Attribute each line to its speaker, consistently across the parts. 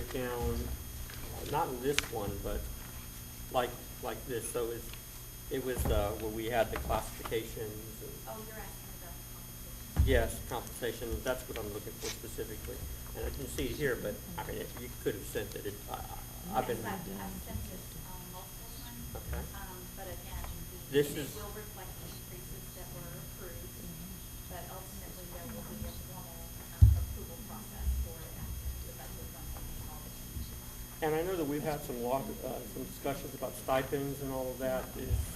Speaker 1: breakdown, uh, not in this one, but like, like this, so it's, it was, uh, where we had the classifications and, uh,
Speaker 2: Oh, you're asking about the compensation.
Speaker 1: yes, compensation, that's what I'm looking for specifically. And I can see it here, but, I mean, you could have sent it, it, I, I- I've been,
Speaker 2: Yes, I've, I've sent this, um, multiple times.
Speaker 1: Okay.
Speaker 2: Um, but again, the,
Speaker 1: This
Speaker 2: and it
Speaker 1: is-
Speaker 2: will reflect the increases that were approved, but ultimately there will be a formal, um, approval process for it after the budget funding and all the changes.
Speaker 1: and I know that we've had some walk, uh, some discussions about stipends and all of that. Is-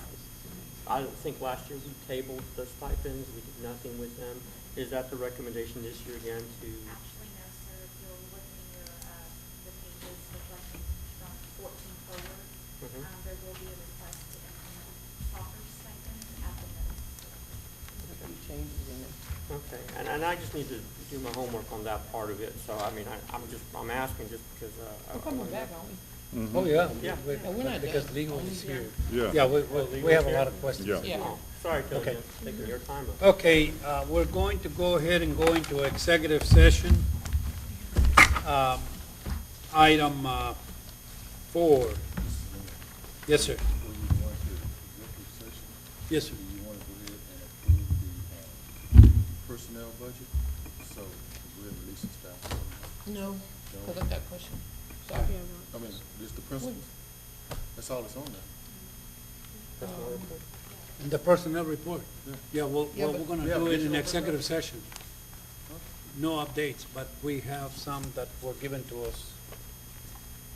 Speaker 1: I don't think last year we tabled the stipends, we did nothing with them. Is that the recommendation this year again to
Speaker 2: Actually, no, sir, if you'll look in your, uh, the pages reflecting from fourteen forward,
Speaker 1: Mhm.
Speaker 2: um, there will be a request to implement proper stipends at the middle school.
Speaker 3: There's a few changes in there.
Speaker 1: Okay, and, and I just need to do my homework on that part of it, so, I mean, I, I'm just, I'm asking just because, uh. I-
Speaker 3: We're
Speaker 1: I
Speaker 3: coming
Speaker 1: wanna-
Speaker 3: back, aren't we?
Speaker 4: Oh, yeah.
Speaker 1: Yeah.
Speaker 4: We-
Speaker 3: Yeah, we're not
Speaker 4: Because
Speaker 3: done.
Speaker 4: legal is here.
Speaker 5: Yeah.
Speaker 4: Yeah, we, we- we have a lot of questions.
Speaker 5: Yeah.
Speaker 3: Yeah.
Speaker 1: Oh, Sorry,
Speaker 4: Okay.
Speaker 1: Jillian, taking your time up.
Speaker 4: Okay, uh, we're going to go ahead and go into executive session. Um, Item uh, four. Yes, sir.
Speaker 6: When you go into executive session,
Speaker 4: Yes, sir.
Speaker 6: do you want to go ahead and approve the uh, personnel budget? So we're releasing staff.
Speaker 3: No, because I got a question. Sorry.
Speaker 6: I mean, just the principal. That's all that's on there.
Speaker 4: And the personnel report. Yeah, well,
Speaker 3: Yeah,
Speaker 4: well, we're
Speaker 3: but-
Speaker 4: going to
Speaker 6: Yeah,
Speaker 4: do
Speaker 6: but
Speaker 4: it
Speaker 6: it's
Speaker 4: in
Speaker 6: all-
Speaker 4: executive session. No updates, but we have some that were given to us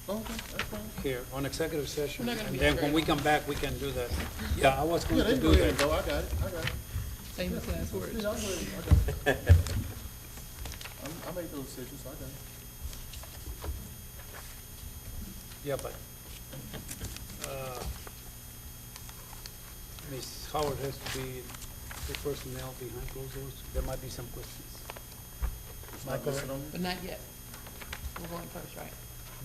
Speaker 6: Oh, Okay, that's fine.
Speaker 4: here on executive session.
Speaker 3: We're not gonna be
Speaker 4: And then when
Speaker 3: straight.
Speaker 4: we come back, we can do that. Yeah, I was going
Speaker 6: Yeah,
Speaker 4: to
Speaker 6: they go
Speaker 4: do
Speaker 6: ahead and
Speaker 4: that.
Speaker 6: go, I got it, I got it.
Speaker 3: Famous last
Speaker 6: Yeah, I
Speaker 3: words.
Speaker 6: go ahead, I got it. I'm- I made those decisions, I got it.
Speaker 4: Yeah, but, uh, Ms. Howard has to be the personnel behind closed doors. There might be some questions.
Speaker 6: It's not
Speaker 4: Michael.
Speaker 6: listed on
Speaker 3: But
Speaker 6: here?
Speaker 3: not yet. We're going first, right?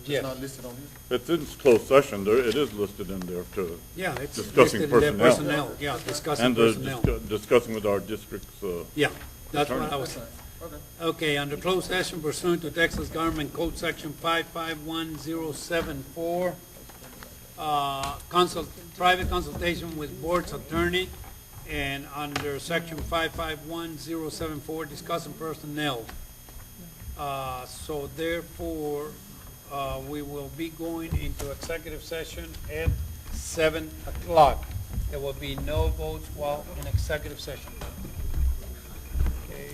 Speaker 6: It's not listed on here?
Speaker 5: It's in closed session, there, it is listed in there too.
Speaker 4: Yeah, it's
Speaker 5: Discussing
Speaker 4: listed in there,
Speaker 5: personnel.
Speaker 4: personnel, yeah, discussing
Speaker 5: And uh,
Speaker 4: personnel.
Speaker 5: discu- discussing with our districts, uh,
Speaker 4: Yeah, that's what
Speaker 5: Attorney.
Speaker 4: I
Speaker 6: That's
Speaker 4: was,
Speaker 6: fine. Okay.
Speaker 4: okay, under closed session pursuant to Texas Government Code Section five-five-one-zero-seven-four, uh, consult, private consultation with board's attorney, and under section five-five-one-zero-seven-four, discussing personnel. Uh, so therefore, uh, we will be going into executive session at seven o'clock. There will be no votes while in executive session. Okay, uh,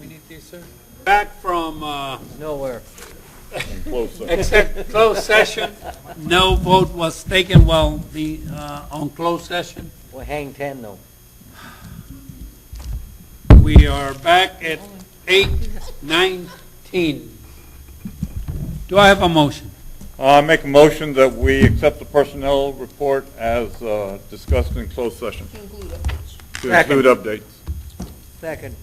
Speaker 4: we need this, sir? Back from, uh,
Speaker 5: closed session.
Speaker 4: exec, closed session, no vote was taken while the, uh, on closed session.
Speaker 7: Well, hang ten though.
Speaker 4: We are back at eight nineteen. Do I have a motion?
Speaker 5: Uh, I make a motion that we accept the personnel report as uh, discussed in closed session
Speaker 3: To include updates.
Speaker 5: to include updates.
Speaker 7: Second.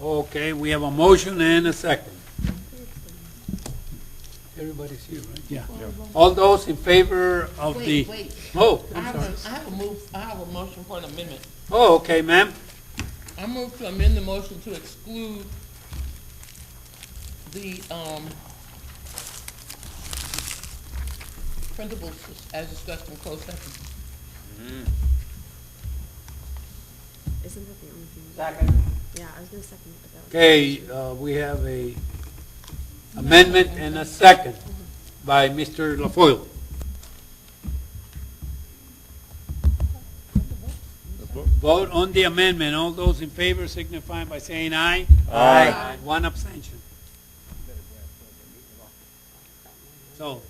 Speaker 4: Okay, we have a motion and a second. Everybody's here, right? Yeah. All those in favor of the,
Speaker 3: Wait, wait.
Speaker 4: oh,
Speaker 3: I
Speaker 4: I'm
Speaker 3: have a, I
Speaker 4: sorry.
Speaker 3: have a move, I have a motion for an amendment.
Speaker 4: Oh, okay, ma'am.
Speaker 3: I move to amend the motion to exclude the, um, principles as discussed in closed session.
Speaker 8: Isn't that the only thing?
Speaker 7: Second.
Speaker 8: Yeah, I was gonna second it, but that was.
Speaker 4: Okay, uh, we have a amendment and a second by Mr. LaFoil. Vote on the amendment. All those in favor signify by saying aye. Aye. One abstention. So,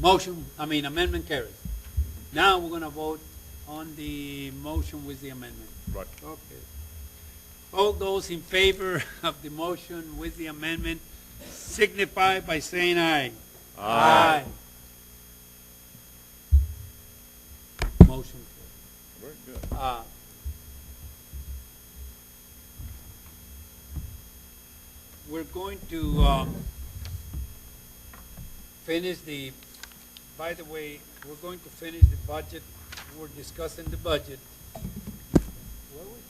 Speaker 4: motion, I mean amendment carries. Now we're gonna vote on the motion with the amendment.
Speaker 5: Right.
Speaker 4: Okay. All those in favor of the motion with the amendment signify by saying aye. Aye. Motion.
Speaker 5: Very good.
Speaker 4: Uh, We're going to um, finish the, by the way, we're going to finish the budget. We're discussing the budget. Were we?